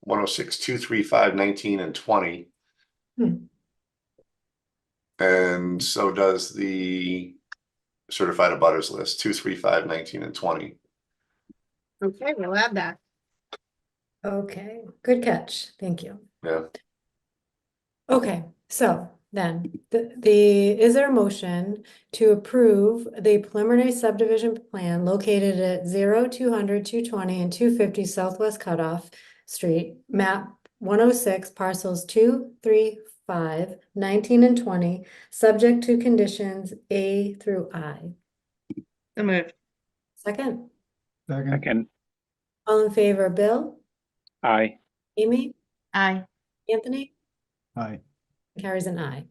one oh six, two, three, five, nineteen, and twenty. Hmm. And so does the certified abutters list, two, three, five, nineteen, and twenty. Okay, we'll add that. Okay, good catch. Thank you. Yeah. Okay, so then the, the, is there a motion to approve the preliminary subdivision plan located at 0, 200, 220, and two fifty Southwest Cutoff Street, map one oh six parcels 2, 3, 5, 19, and twenty, subject to conditions A through I. So moved. Second, Second, Second, all in favor, Bill, aye. Amy, Aye. Anthony? aye. Carries an eye.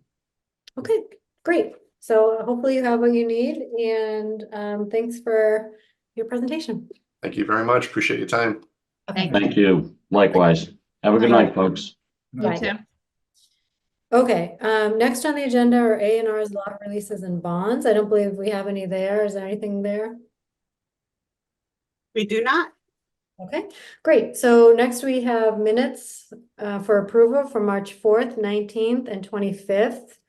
Okay, great. So hopefully you have what you need and um thanks for your presentation. Thank you very much. Appreciate your time. Thank Thank you. Likewise. Have a good night, folks. You too. Okay, um next on the agenda are A and R's lot releases and bonds. I don't believe we have any there. Is there anything there? We do not? Okay, great. So next we have minutes uh, for approval for March fourth, nineteenth, and twenty-fifth.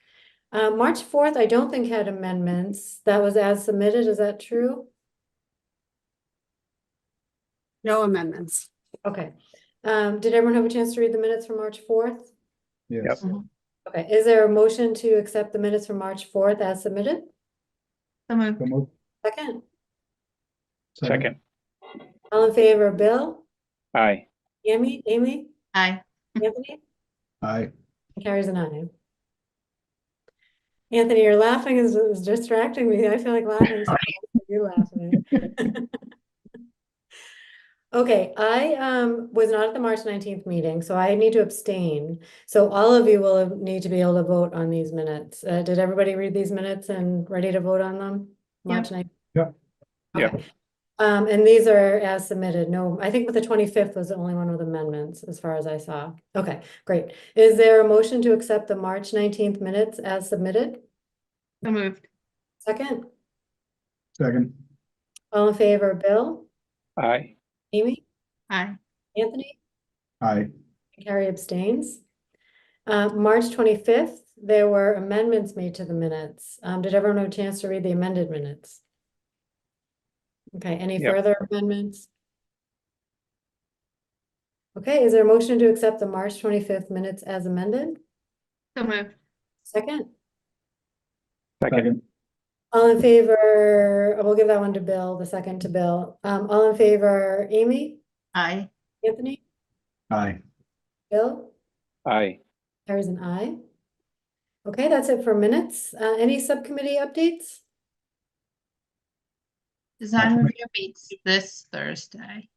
Uh, March fourth, I don't think had amendments. That was as submitted. Is that true? No amendments. Okay, um, did everyone have a chance to read the minutes from March fourth? Yes, Okay, is there a motion to accept the minutes from March fourth as submitted? So moved. So moved. Second, Second, all in favor, Bill, aye. Yemi, Amy, Aye. Anthony, Aye, carries an eye. Anthony, your laughing is, is distracting me. I feel like laughing. so You're laughing. Okay, I, um, was not at the March nineteenth meeting, so I need to abstain. So all of you will need to be able to vote on these minutes. Uh, did everybody read these minutes and ready to vote on them? March ninth? Yep. Yep. Um, and these are as submitted. No, I think with the twenty-fifth was the only one with amendments, as far as I saw. Okay, great. Is there a motion to accept the March nineteenth minutes as submitted? So moved. Second, second, all in favor, Bill, Aye, Amy, Aye. Anthony? aye, Carrie abstains. Uh, March twenty-fifth, there were amendments made to the minutes. Um, did everyone have a chance to read the amended minutes? Okay, any Yep. further amendments? Okay, is there a motion to accept the March twenty-fifth minutes as amended? So moved. Second, second, second, all in favor, oh, we'll give that one to Bill, the second to Bill. Um, all in favor, Amy, Aye. Anthony, aye. Bill? aye. Carries an eye. Okay, that's it for minutes. Uh, any subcommittee updates? Design Nice. review meets this Thursday.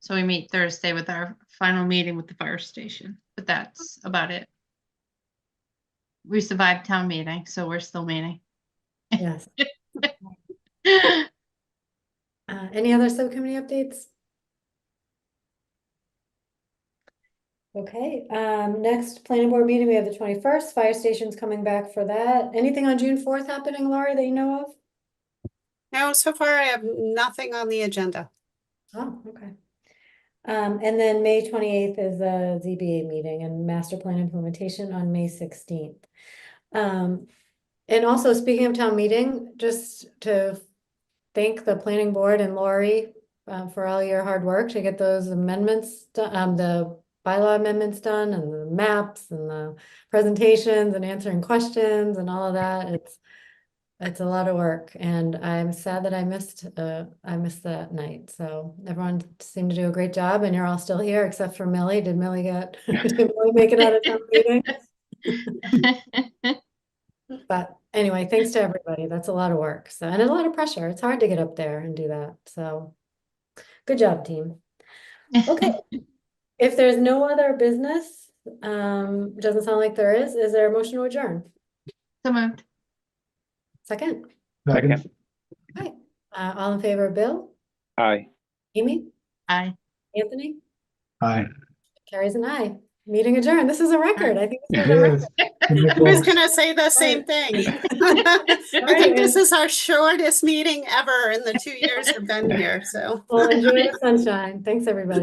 So we meet Thursday with our final meeting with the fire station, but that's about it. We survived town meeting, so we're still meeting. Yes. Uh, any other subcommittee updates? Okay, um, next planning board meeting, we have the twenty-first, fire station's coming back for that. Anything on June fourth happening, Laurie, that you know of? No, so far I have nothing on the agenda. Oh, okay. Um, and then May twenty-eighth is the ZBA meeting and master plan implementation on May sixteenth. Um, and also speaking of town meeting, just to thank the planning board and Lori uh, for all your hard work to get those amendments, do- um, the bylaw amendments done and the maps and the presentations and answering questions and all of that. It's it's a lot of work and I'm sad that I missed, uh, I missed that night. So everyone seemed to do a great job and you're all still here except for Millie. Did Millie get, did Millie make it out of town meeting? But anyway, thanks to everybody. That's a lot of work. So, and a lot of pressure. It's hard to get up there and do that. So, good job, team. Okay. If there's no other business, um, doesn't sound like there is, is there a motion to adjourn? So moved. Second, Second, uh, all in favor, Bill, aye. Amy, Aye. Anthony, Aye. carries an eye. Meeting adjourned. This is a record. I think. this is a It record. is. I was gonna say the same thing. I think this Alright. is our shortest meeting ever in the two years I've been here, so. Well, enjoy the sunshine. Thanks, everybody.